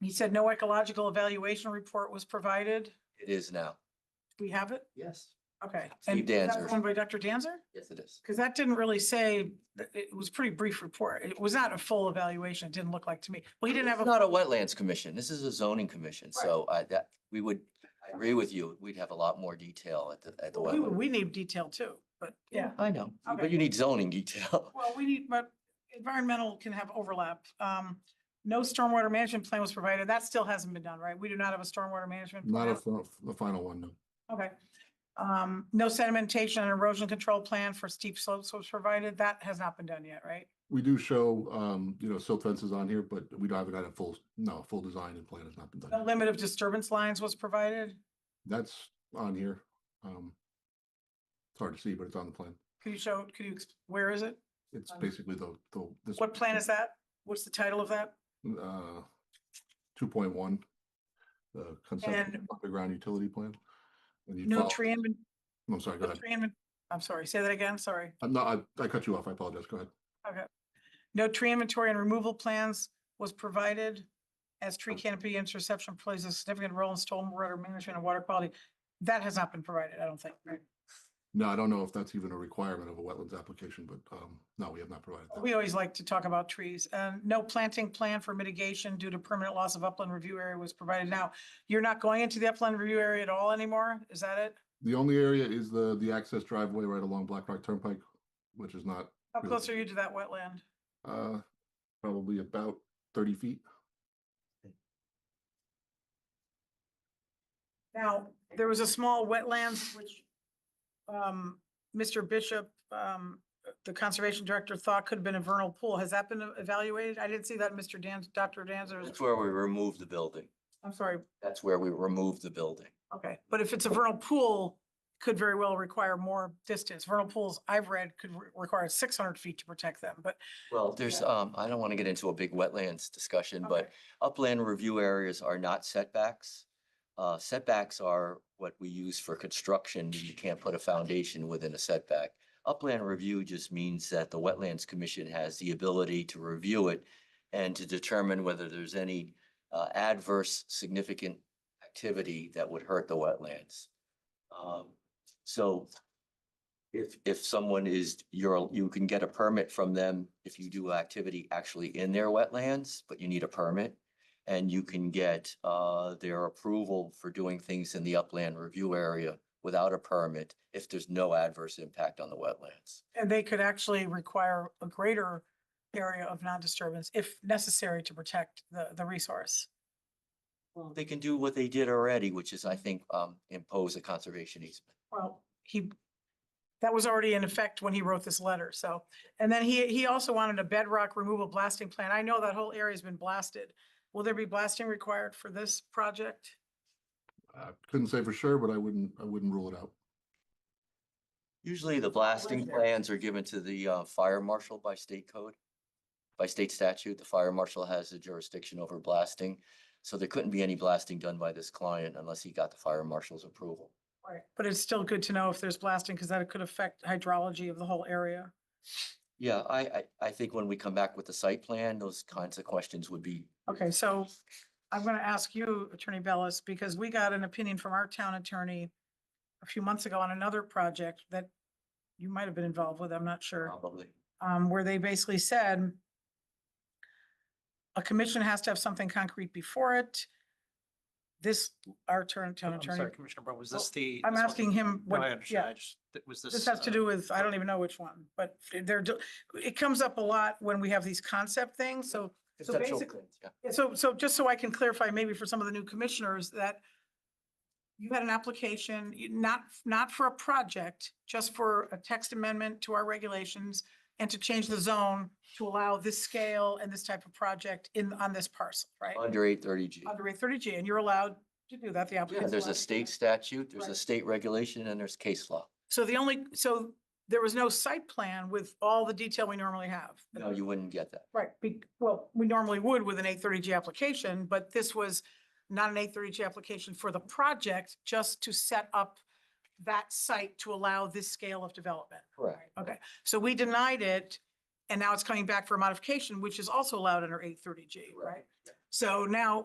He said no ecological evaluation report was provided. It is now. Do we have it? Yes. Okay. Steve And that Danzer. was One by Dr. Danzer? Yes, it is. Because that didn't really say, it was a pretty brief report. It was not a full evaluation. It didn't look like to me. Well, he didn't It's have a, Not a wetlands commission. This is a zoning commission. So I, that, we would, I agree with you. We'd have a lot more detail at the, at the we, wetland. we need detail too, but yeah. I know, but Okay. you need zoning detail. Well, we need, but environmental can have overlap. Um, no stormwater management plan was provided. That still hasn't been done, right? We do not have a stormwater management. Not plan. a, fi- the final one, no. Okay. Um, no sedimentation and erosion control plan for steep slopes was provided. That has not been done yet, right? We do show, um, you know, silt fences on here, but we don't have it at a full, no, full design and plan has not been No done. limit of disturbance lines was provided. That's on here. Um, it's hard to see, but it's on the plan. Could you show, could you, ex- where is it? It's Um, basically the, the. this- What plan is that? What's the title of that? Uh, two point one. The conceptual And- underground utility plan. And you No follow- tree inven, I'm sorry, go no ahead. tree inven, I'm sorry, say that again, sorry. I'm not, I, I cut you off. I apologize. Go ahead. No tree inventory and removal plans was provided as tree canopy interception plays a significant role in stormwater management and water quality. That has not been provided, I don't think, right? No, I don't know if that's even a requirement of a wetlands application, but, um, no, we have not provided that. We always like to talk about trees. Um, no planting plan for mitigation due to permanent loss of upland review area was provided. Now, you're not going into the upland review area at all anymore? Is that it? The only area is the, the access driveway right along Black Rock Turnpike, which is not, How Really? close are you to that wetland? uh, probably about thirty feet. Now, there was a small wetlands which um, Mr. Bishop, um, the conservation director thought could have been a vernal pool. Has that been evaluated? I didn't see that, in Mr. Dan, Dr. That's Danzer's. where we removed the building. I'm sorry. That's where we removed the building. Okay, but if it's a vernal pool, could very well require more distance. Vernal pools I've read could re- require six hundred feet to protect them, but. Well, there's, um, I don't want to get into a big wetlands discussion, but okay. upland review areas are not setbacks. Uh, setbacks are what we use for construction. You can't put a foundation within a setback. Upland review just means that the Wetlands Commission has the ability to review it and to determine whether there's any uh, adverse significant activity that would hurt the wetlands. Um, So if, if someone is, you're, you can get a permit from them if you do activity actually in their wetlands, but you need a permit. And you can get uh, their approval for doing things in the upland review area without a permit if there's no adverse impact on the wetlands. And they could actually require a greater area of non-disturbance if necessary to protect the, the resource. They can do what they did already, which is, I think, um, impose a conservation easement. Well, he, that was already in effect when he wrote this letter, so. And then he, he also wanted a bedrock removal blasting plan. I know that whole area's been blasted. Will there be blasting required for this project? I couldn't say for sure, but I wouldn't, I wouldn't rule it out. Usually the blasting there. plans are given to the uh, fire marshal by state code. By state statute, the fire marshal has the jurisdiction over blasting. So there couldn't be any blasting done by this client unless he got the fire marshal's approval. Right. But it's still good to know if there's blasting, because that could affect hydrology of the whole area. Yeah, I, I, I think when we come back with the site plan, those kinds of questions would be, Okay, so I'm going to ask you, Attorney Bellis, because we got an opinion from our town attorney a few months ago on another project that you might have been involved with, I'm not sure. probably. um, where they basically said a commission has to have something concrete before it. This, our turn, town Oh, I'm attorney, sorry, Commissioner Brown, was Well, this the? I'm this was- asking him No, I what, understand. yeah, I just- that- Was this? this has to uh, do with, I don't even know which one, but they're, do- it comes up a lot when we have these concept things, so So Conceptual basically- plans, yeah. yeah, So, so just so I can clarify maybe for some of the new commissioners that you had an application, you- not, not for a project, just for a text amendment to our regulations and to change the zone to allow this scale and this type of project in, on this parcel, right? Under eight thirty G. Under a thirty G, and you're allowed to do that, the Yeah, applicant. there's a state statute, there's a Right. state regulation, and there's case law. So the only, so there was no site plan with all the detail we normally have. No, you wouldn't get that. Right, be, well, we normally would with an eight thirty G application, but this was not an eight thirty G application for the project, just to set up that site to allow this scale of development. Correct. Okay, so we denied it, and now it's coming back for a modification, which is also allowed under eight thirty G, Correct. right? So now